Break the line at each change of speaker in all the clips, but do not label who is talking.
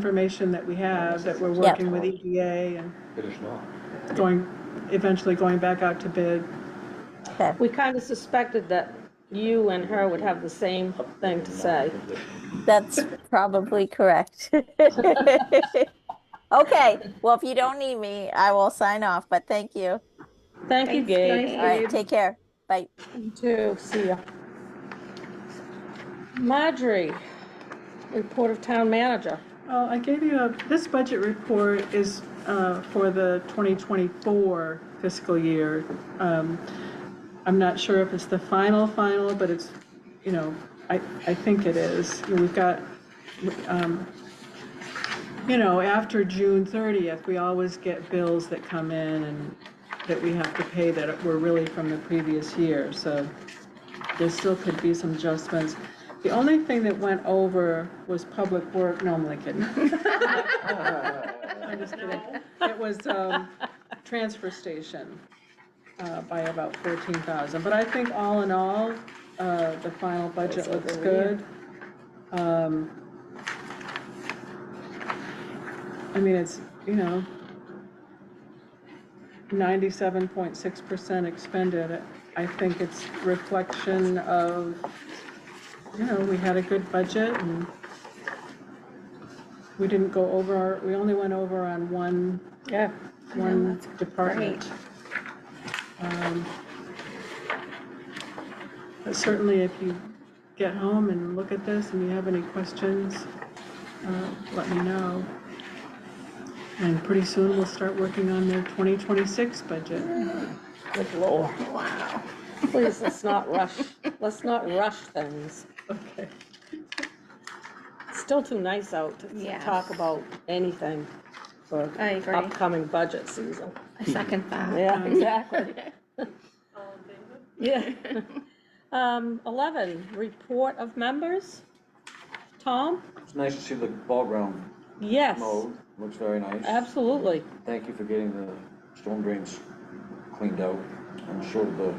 information that we have, that we're working with EDA and
It is not.
going, eventually going back out to bid.
Okay.
We kind of suspected that you and her would have the same thing to say.
That's probably correct. Okay, well, if you don't need me, I will sign off, but thank you.
Thank you, Gabe.
All right, take care. Bye.
You too. See ya. Marjorie, report of town manager.
Well, I gave you a, this budget report is uh, for the 2024 fiscal year. Um, I'm not sure if it's the final, final, but it's, you know, I, I think it is. We've got, um, you know, after June 30th, we always get bills that come in and that we have to pay that were really from the previous year, so there still could be some adjustments. The only thing that went over was public work, no, I'm only kidding. I'm just kidding. It was, um, transfer station, uh, by about fourteen thousand, but I think all in all, uh, the final budget looks good. Um, I mean, it's, you know, ninety-seven point six percent expended. I think it's reflection of, you know, we had a good budget and we didn't go over, our- we only went over on one,
Yeah.
one department. Um, But certainly if you get home and look at this and you have any questions, uh, let me know. And pretty soon we'll start working on the 2026 budget.
Good lord. Please, let's not rush, let's not rush things.
Okay.
It's still too nice out to
Yeah.
talk about anything for
I agree.
upcoming budget season.
I second that.
Yeah, exactly. Yeah. Um, eleven, report of members. Tom?
It's nice to see the ball ground
Yes,
mowed, looks very nice.
absolutely.
Thank you for getting the storm drains cleaned out. I'm sure the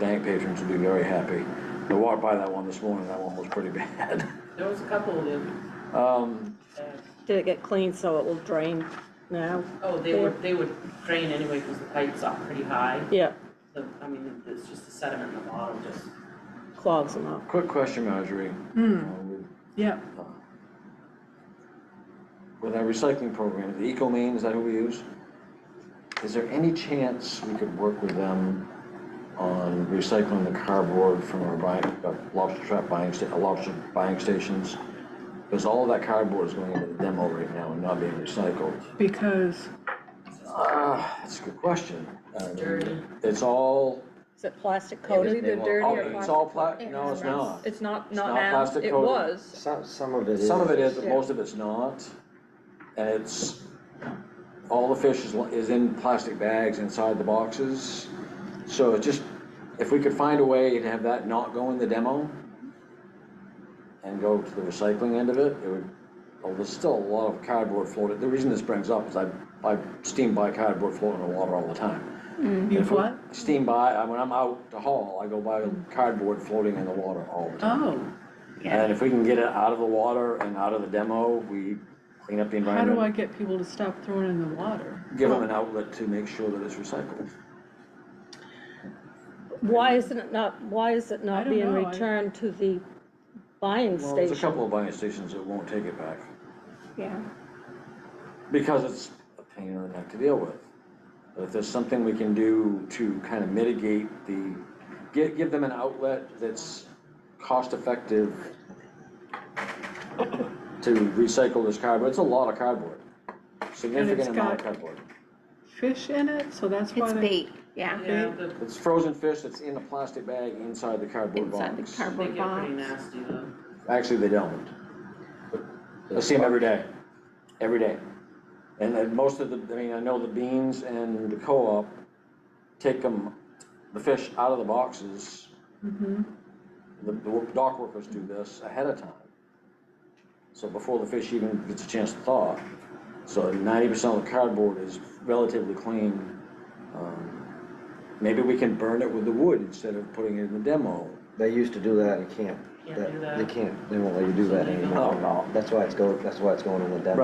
bank patrons will be very happy. I walked by that one this morning, that one was pretty bad.
There was a couple of them.
Um,
uh,
Did it get clean so it will drain now?
Oh, they were, they would drain anyway because the pipes are pretty high.
Yeah,
So, I mean, it's just the sediment in the bottom just
clogs them up.
quick question, Marjorie.
Hmm,
Uh, with-
yeah,
With our recycling program, the Eco Main, is that who we use? Is there any chance we could work with them on recycling the cardboard from our buying, uh, lobster trap buying, sta- uh, lobster buying stations? Because all of that cardboard is going into the demo right now and not being recycled.
because,
Ah, that's a good question. Um,
dirty.
It's all,
Is it plastic
It was
coated?
either
well,
dirty
all-
or
it's
plastic.
all pla, no, it's not.
It's not,
It's
not
not
now,
plastic
it
coated.
was.
Some, some of it is.
Some of it is, but
Yeah.
most of it's not. And it's, all the fish is, is in plastic bags inside the boxes. So it just, if we could find a way to have that not go in the demo and go to the recycling end of it, it would, well, there's still a lot of cardboard floating. The reason this brings up is I, I steam by cardboard floating in the water all the time.
you
If we
what?
Steam by, I- when I'm out to haul, I go by cardboard floating in the water all the time.
Oh,
And if we can get it out of the water and out of the demo, we clean up the
how do I
environment,
get people to stop throwing in the water?
give them an outlet to make sure that it's recycled.
Why isn't it not, why is it
I
not
don't
being
know, I-
returned to the buying
Well, there's a
station?
couple of buying stations that won't take it back
Yeah.
because it's a pain in the neck to deal with. But if there's something we can do to kind of mitigate the, give, give them an outlet that's cost effective to recycle this cardboard, it's a lot of cardboard, significant amount of
got-
cardboard.
Fish in it, so that's why
It's
they.
bait, yeah,
Yeah, the,
It's frozen fish that's in a plastic bag inside the cardboard
inside
box.
the
they
cardboard
get pretty
box.
nasty though.
Actually, they don't. I see them every day, every day. And then most of the, I mean, I know the beans and the co-op take them, the fish out of the boxes.
Mhm.
The the dock workers do this ahead of time. So before the fish even gets a chance to thaw. So ninety percent of the cardboard is relatively clean. Um, Maybe we can burn it with the wood instead of putting it in the demo.
They used to do that in camp.
Can't
That-
do that.
They can't, they won't let you do
So
that
they don't.
anymore. That's why it's go, that's why it's going in the demo.